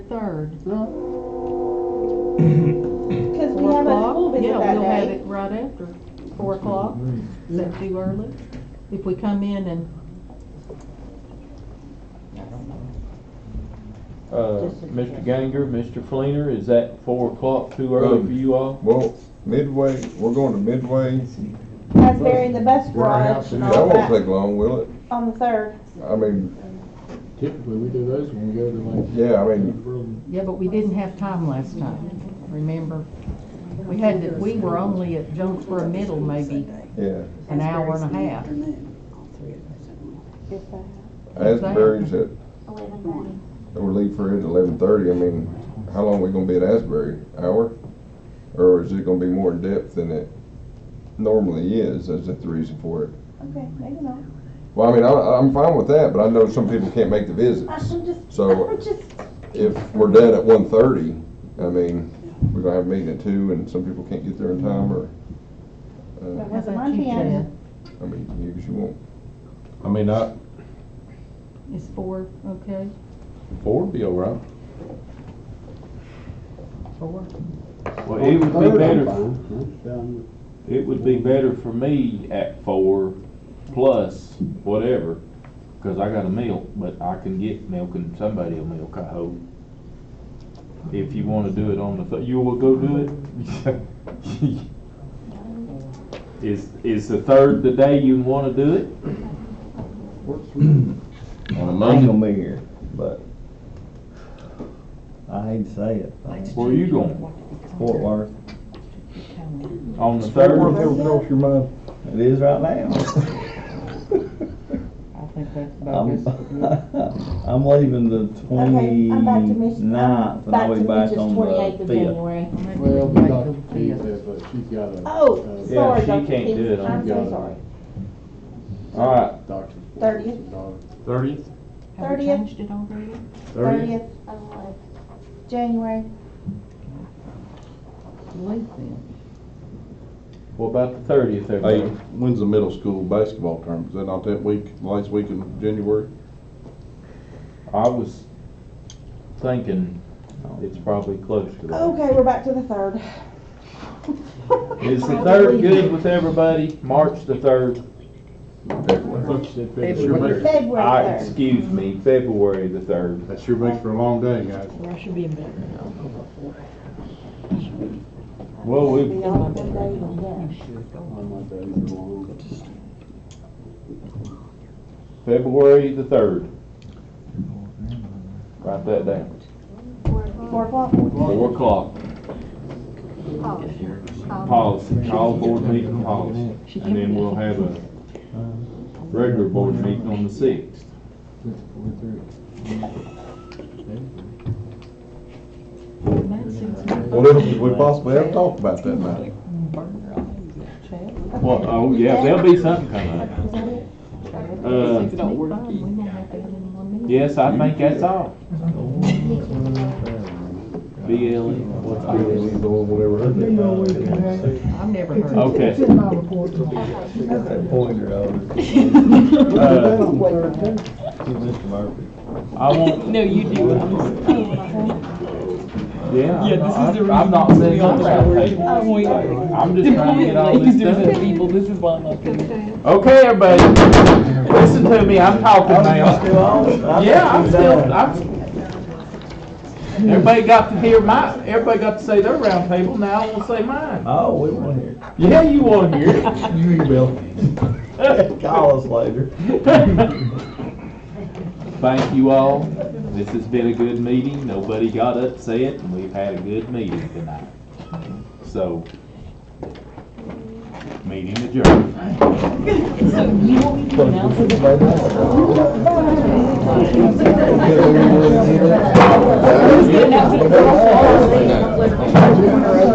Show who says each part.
Speaker 1: third.
Speaker 2: No,
Speaker 3: Because we
Speaker 1: Four
Speaker 3: have a
Speaker 1: o'clock?
Speaker 3: school visit
Speaker 1: Yeah,
Speaker 3: that
Speaker 1: we'll have
Speaker 3: day.
Speaker 1: it right after, four o'clock. Is that too early? If we come in and,
Speaker 4: Uh, Mr. Ganger, Mr. Fleener, is that four o'clock too early for you all?
Speaker 2: well, midway, we're going to midway.
Speaker 3: That's there in the bus garage and
Speaker 2: That
Speaker 3: all
Speaker 2: won't
Speaker 3: that
Speaker 2: take long, will it?
Speaker 3: on the third.
Speaker 2: I mean,
Speaker 5: Typically, we do those when we go to
Speaker 2: yeah, I
Speaker 5: like.
Speaker 2: mean,
Speaker 1: yeah, but we didn't have time last time, remember? We had, to- we were only at Jonesboro Middle maybe
Speaker 2: yeah.
Speaker 1: an hour and a half.
Speaker 2: Asbury's at, we leave for here at eleven thirty. I mean, how long we gonna be at Asbury? Hour? Or is it gonna be more in depth than it normally is? Is that the reason for it?
Speaker 3: Okay, maybe not.
Speaker 2: Well, I mean, I, I'm fine with that, but I know some people can't make the visits.
Speaker 3: I'm just,
Speaker 2: So-
Speaker 3: I'm just,
Speaker 2: If we're done at one thirty, I mean, we're gonna have a meeting at two and some people can't get there in time or,
Speaker 3: it
Speaker 2: uh,
Speaker 3: was
Speaker 1: How about
Speaker 3: a Monday
Speaker 1: you,
Speaker 3: and
Speaker 1: Jan?
Speaker 2: I mean, you, 'cause you won't.
Speaker 4: I mean, I,
Speaker 1: Is four, okay,
Speaker 4: four would be all right.
Speaker 1: four?
Speaker 4: Well, it would be better,
Speaker 5: better.
Speaker 4: it would be better for me at four plus whatever, cause I got a milk, but I can get milk and somebody will milk, I hope. If you wanna do it on the, th- you will go do it? Is, is the third the day you wanna do it?
Speaker 6: On a Monday, I'm here, but I hate to say it, but
Speaker 4: Where are you going?
Speaker 6: Fort Worth,
Speaker 4: On the third?
Speaker 6: it is right now.
Speaker 1: I think that's
Speaker 6: I'm,
Speaker 1: bogus.
Speaker 6: I'm leaving the
Speaker 3: Okay, I'm back to Mich- I'm
Speaker 6: twenty-ninth, and
Speaker 3: back
Speaker 6: I'll be
Speaker 3: to
Speaker 6: back
Speaker 3: Mitch's
Speaker 6: on
Speaker 3: 28th of
Speaker 6: the fifth.
Speaker 3: January.
Speaker 5: Well,
Speaker 1: Back
Speaker 5: we
Speaker 1: to
Speaker 5: got,
Speaker 1: the
Speaker 5: she's
Speaker 1: fifth.
Speaker 5: but she's got a.
Speaker 3: Oh,
Speaker 5: uh,
Speaker 4: Yeah,
Speaker 3: sorry,
Speaker 4: she
Speaker 3: Dr.
Speaker 4: can't do
Speaker 3: Peters.
Speaker 4: it.
Speaker 3: I'm
Speaker 5: Got
Speaker 3: so
Speaker 5: it.
Speaker 3: sorry.
Speaker 4: Alright,
Speaker 5: Doctor's.
Speaker 3: Thirtieth.
Speaker 4: thirty?
Speaker 1: Have we
Speaker 3: 30th?
Speaker 1: changed it already?
Speaker 3: Thirtieth of January.
Speaker 1: Late then.
Speaker 4: What about the thirtieth,
Speaker 7: Hey,
Speaker 4: everybody?
Speaker 7: when's the middle school basketball tournament? Is that not that week, last week in January?
Speaker 4: I was thinking uh, it's probably close to that.
Speaker 3: Okay, we're back to the third.
Speaker 4: Is the third good with everybody? March the third?
Speaker 2: February.
Speaker 4: Ah,
Speaker 5: February.
Speaker 3: February third.
Speaker 4: excuse me, February the third.
Speaker 7: That sure makes for a long day, guys.
Speaker 1: I should be in bed.
Speaker 4: Well, we,
Speaker 5: One month early, we're going.
Speaker 4: February the third. Write that down.
Speaker 3: Four o'clock.
Speaker 4: Four o'clock. Policy, all board meeting policy. And then we'll have a regular board meeting on the sixth.
Speaker 2: What else could we possibly have talked about that night?
Speaker 4: Well, oh, yeah, there'll be something coming up. Uh, Yes, I think that's all. BLE, what's BLE?
Speaker 1: I've never heard of
Speaker 4: Okay.
Speaker 6: She got that pointer over. She's
Speaker 4: Uh,
Speaker 6: Mr. Murphy.
Speaker 4: I won't. No, you do. Yeah. Yeah, this is the reason. I'm not saying nothing about people. I'm just trying to get all this done.
Speaker 8: this is why I'm up here.
Speaker 4: Okay, everybody, listen to me, I'm talking now. Yeah, I'm still, I'm. Everybody got to hear my, everybody got to say their round table, now I will say mine.
Speaker 6: Oh, we want to hear.
Speaker 4: Yeah, you wanna hear it.
Speaker 6: You email. Call us later.
Speaker 4: Thank you all. This has been a good meeting. Nobody got upset and we've had a good meeting tonight. So, meeting adjourned.
Speaker 2: Yeah, we were in here.